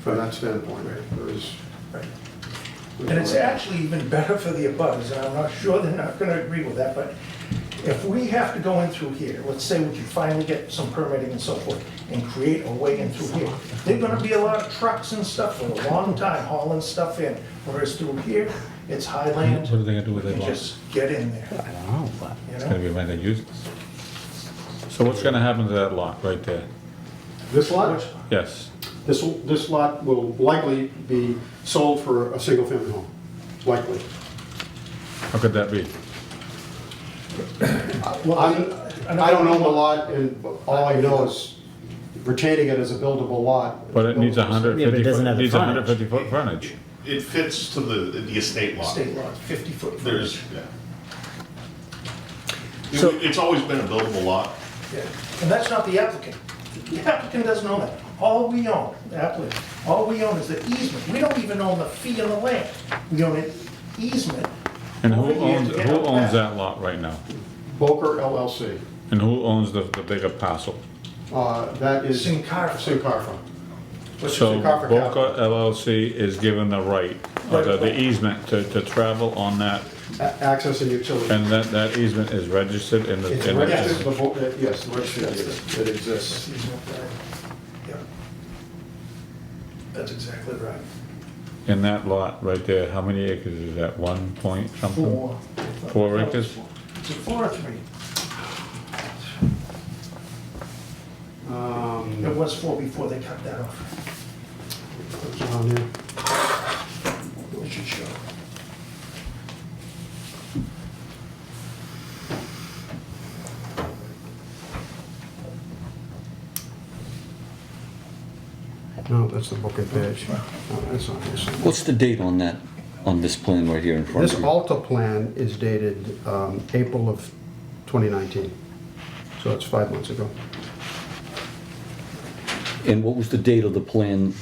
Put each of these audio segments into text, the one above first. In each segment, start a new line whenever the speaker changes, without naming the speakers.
from that standpoint. There is.
Right. And it's actually even better for the abutters, and I'm not sure they're not gonna agree with that, but if we have to go in through here, let's say we can finally get some permitting and so forth, and create a way in through here, there're gonna be a lot of trucks and stuff for a long time hauling stuff in, whereas through here, it's high land.
What are they gonna do with
We
that
can
lot?
just get in there.
I don't know, but it's
You know?
gonna be rented useless. So what's gonna happen to that lot right there?
This lot,
Yes,
this, this lot will likely be sold for a single-family home, likely.
how could that be?
Well, I'm- I don't own the lot, and all I know is retaining it as a buildable lot.
But it needs a hundred
Yeah, but it
fifty,
doesn't
foot-
have the
needs a hundred
frontage.
fifty foot frontage.
It fits to the, the estate lot.
State law, fifty foot.
There's, yeah.
So-
It- It's always been a buildable lot.
Yeah, And that's not the applicant. The applicant doesn't own that. All we own, the applicant, all we own is the easement. We don't even own the fee on the land. We own an easement.
And who
over here to
owns,
get
who
out
owns
back.
that lot right now?
Boker LLC,
And who owns the, the bigger parcel?
uh, that is.
Sincarfa.
Sincarfa. Which is
So
Sincarfa Capital.
Boca LLC is given the right, or the- the easement to, to travel on that,
A- Access and utility.
and that, that easement is registered in the.
It's
in the-
registered, the Bo- uh, yes, registered, yes, it exists.
Easement there. Yeah. That's exactly right.
In that lot right there, how many acres is that, one point something?
Four.
Um, Four acres?
Is it four or three?
Um,
It was four before they cut that off.
what's on there?
We should show.
No, that's the Booker page. No, That's not this.
What's the date on that, on this plan right here in front
This
of you?
Alta plan is dated um, April of 2019, so it's five months ago.
And what was the date of the plan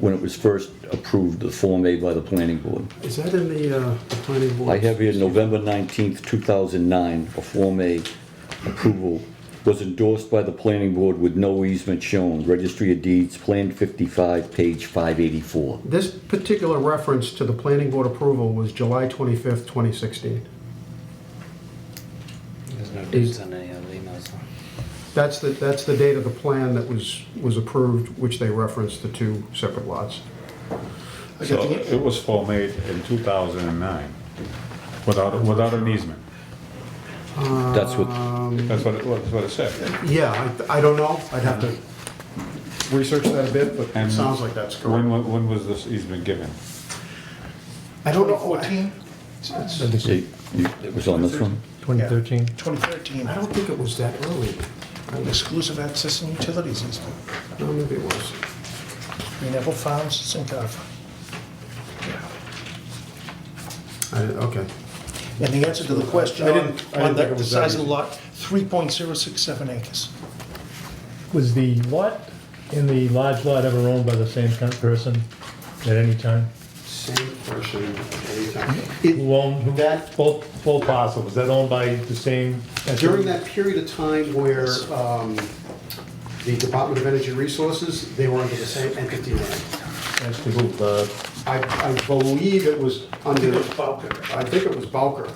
when it was first approved, the Form A by the planning board?
Is that in the uh, the planning board?
I have here November 19th, 2009, a Form A approval was endorsed by the planning board with no easement shown, Registry of Deeds, Plan 55, page 584.
This particular reference to the planning board approval was July 25th, 2016.
There's no dates on any of the emails.
That's the, that's the date of the plan that was, was approved, which they referenced the two separate lots.
So it was formed in two thousand and nine, without, without an easement.
That's what,
That's what it, that's what it said.
Yeah, I I don't know, I'd have to research that a bit, but it
And-
sounds like that's correct.
When, wa- when was this easement given?
I don't know.
Fourteen?
see, you- it was on this one?
2013? 2013.
I don't think it was that early.
Exclusive access and utilities easement.
No, maybe it was.
We never found Sincarfa.
I- Okay.
And the answer to the question
I
on
didn't- I
on
didn't think
the
it was that
size of the
easy.
lot, 3.067 acres.
Was the lot in the large lot ever owned by the same kind of person at any time?
Same person at any time.
Who owned, who,
That-
both, both parcels, was that owned by the same?
During that period of time where um, the Department of Energy Resources, they were under the same entity name.
As to who, the,
I, I believe it was under, I think it was Bowker.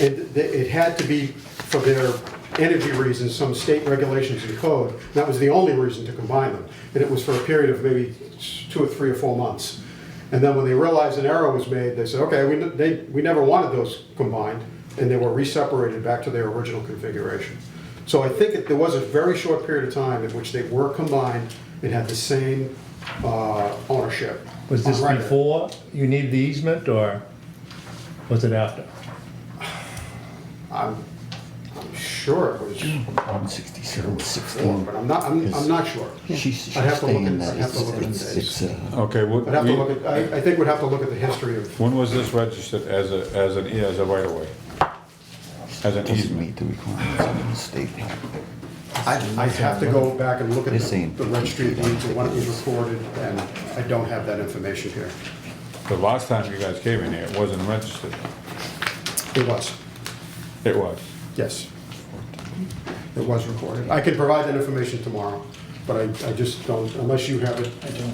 It, it had to be for their energy reasons, some state regulations and code. That was the only reason to combine them. And it was for a period of maybe two or three or four months. And then when they realized an error was made, they said, okay, we, n- they, we never wanted those combined. And they were re-separated back to their original configuration. So I think that there was a very short period of time in which they were combined and had the same, uh, ownership.
was this
on record.
before you needed the easement, or was it after?
I'm, I'm sure it was,
Hmm.
67,
but I'm not, I'm, I'm not sure.
She's
I'd have to look at-
saying
I'd
that
have to
it's,
look at the
it's,
dates.
it's, uh,
Okay, what,
I'd have to
we-
look at, I, I think we'd have to look at the history of,
when was this registered as a, as an, as a right of way? As an
doesn't
easement?
meet the requirements of the state.
I, I have to go back and look at
They're
the
saying-
the registry of deeds and when it was recorded, and I don't have that information here.
The last time you guys came in here, it wasn't registered.
It was,
It was.
yes. It was recorded. I could provide that information tomorrow, but I, I just don't, unless you have it. I don't.